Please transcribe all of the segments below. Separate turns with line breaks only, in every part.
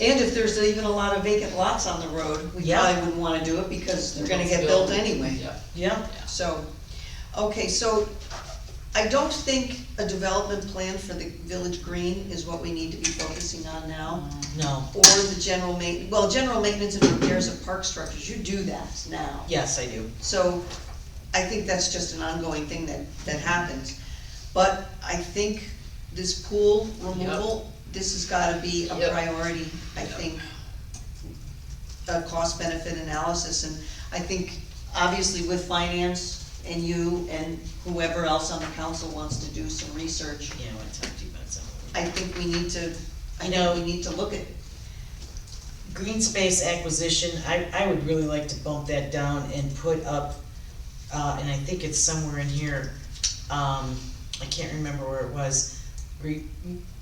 And if there's even a lot of vacant lots on the road, we
Yeah.
probably wouldn't wanna do it because they're gonna get built anyway.
Yeah,
Yeah,
So, okay, so I don't think a development plan for the village green is what we need to be focusing on now.
Um, no,
Or the general ma, well, general maintenance and repairs of park structures, you do that now.
yes, I do.
So I think that's just an ongoing thing that, that happens. But I think this pool removal, this has gotta be a
Yep.
priority, I
Yep.
think. A cost benefit analysis, and I think, obviously with finance and you and whoever else on the council wants to do some research,
You know, I talked to you about some of it.
I think we need to, I
You
know
know-
we need to look at,
Green space acquisition, I, I would really like to bump that down and put up, uh, and I think it's somewhere in here, um, I can't remember where it was. Re,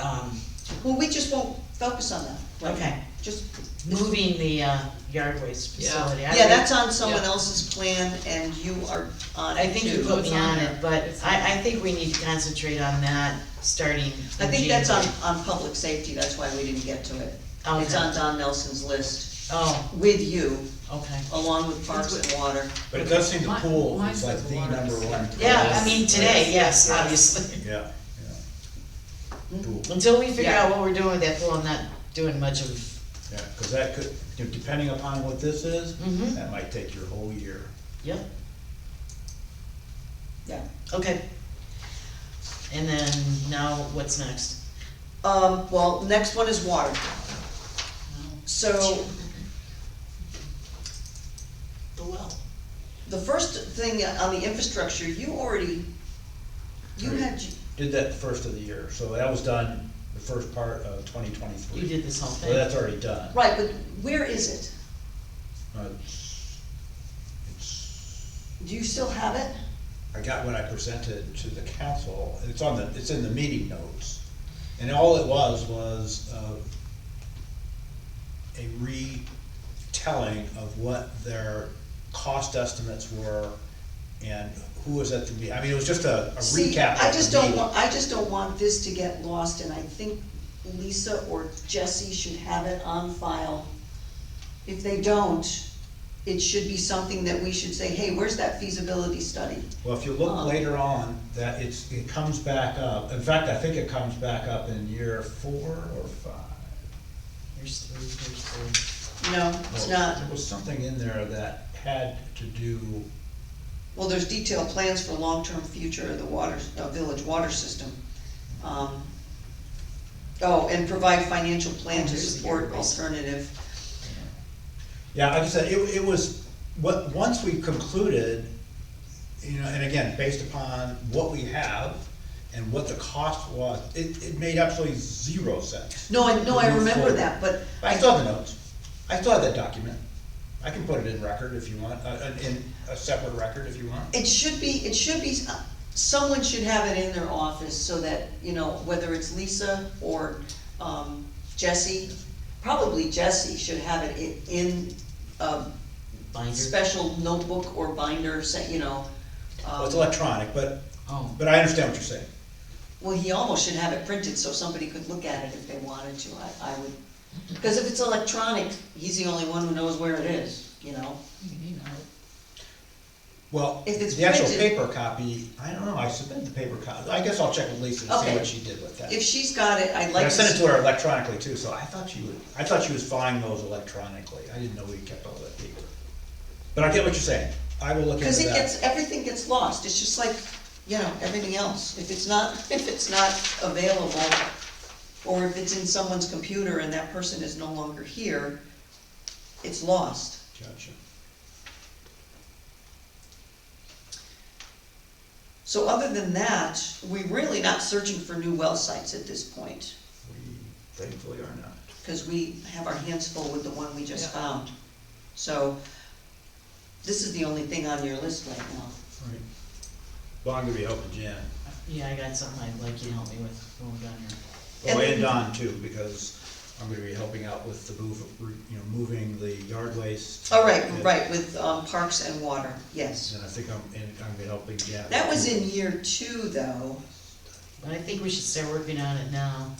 um,
well, we just won't focus on that. right now.
okay,
Just,
moving the, uh, yard waste
Yeah.
facility. I
yeah,
would-
that's on someone
Yeah.
else's plan and you are on
I think you
too.
put me on it, but
It's on
I, I think we need to concentrate on that, starting
I
in
think that's on,
January.
on public safety, that's why we didn't get to it. It's
Okay.
on Don Nelson's list,
Oh,
with you,
okay.
along with parks and water.
But it does seem the
Mine-
pool
mine
is like
says
the
water.
number one.
Yeah, I
Yes.
mean, today, yes,
Yes.
obviously.
Yeah, yeah. Pool,
Until we figure
Yeah.
out what we're doing with that pool, I'm not doing much of,
yeah, cause that could, de- depending upon what this is,
Mm-hmm.
Mhm.
that might take your whole year.
yep,
Yeah.
okay. And then, now, what's next?
Um, well, next one is water. So,
The well.
the first thing on the infrastructure, you already, you had,
Did that the first of the year, so that was done the first part of twenty twenty-three.
You did this whole
So
thing,
that's already done.
right, but where is it?
Uh, it's- it's-
Do you still have it?
I got what I presented to the council, it's on the, it's in the meeting notes. And all it was, was, uh, a retelling of what their cost estimates were and who was at the meeting. I mean, it was just a a
See,
recap
I
of
just
the
don't
meeting.
want, I just don't want this to get lost, and I think Lisa or Jesse should have it on file. If they don't, it should be something that we should say, hey, where's that feasibility study?
Well, if you look
Um,
later on, that it's, it comes back up. In fact, I think it comes back up in year four or five.
here's three, here's three.
No, it's
Well,
not,
There was something in there that had to do,
well, there's detailed plans for long-term future of the water, uh, village water system. Um, Oh, and provide financial plan to
Here's the
support
year waste.
alternative.
yeah, like I said, it, it was, what, once we concluded, you know, and again, based upon what we have and what the cost was, it, it made absolutely zero sense.
No, I, no, I
Move
remember
forward.
that, but
I still have the notes, I still have that document, I can put it in record if you want, uh, uh, in a separate record if you want.
It should be, it should be, uh, someone should have it in their office so that, you know, whether it's Lisa or, um, Jesse, probably Jesse should have it in, in a
Binder,
special notebook or binder, say, you know. um,
Well, it's electronic, but,
oh,
but I understand what you're saying.
Well, he almost should have it printed so somebody could look at it if they wanted to, I, I would, because if it's electronic, he's the only one who knows where it is, you know?
you know,
Well,
If it's
the actual
printed-
paper copy, I don't know, I submitted the paper copy, I guess I'll check with Lisa and
Okay.
see what she did with that.
If she's got it, I'd
But
like
I
to.
sent it to her electronically too, so I thought she would, I thought she was filing those electronically, I didn't know we kept all that paper. But I get what you're saying, I will look into
Because it
that.
gets, everything gets lost, it's just like, you know, everything else, if it's not, if it's not available, or if it's in someone's computer and that person is no longer here, it's lost.
Gotcha.
So other than that, we're really not searching for new well sites at this point,
We thankfully are not.
because we have our hands full with the one we just
Yeah.
found. So, this is the only thing on your list right now.
Right. Well, I'm gonna be helping Jan,
yeah, I got something I'd like you to help me with when we're done here.
oh,
And-
and Don too, because I'm gonna be helping out with the move, you know, moving the yard waste.
All Oh, right, right, with um, parks and water, yes.
And I think I'm, and I'm gonna be helping Jan.
That was in year two, though.
But I think we should start working on it now.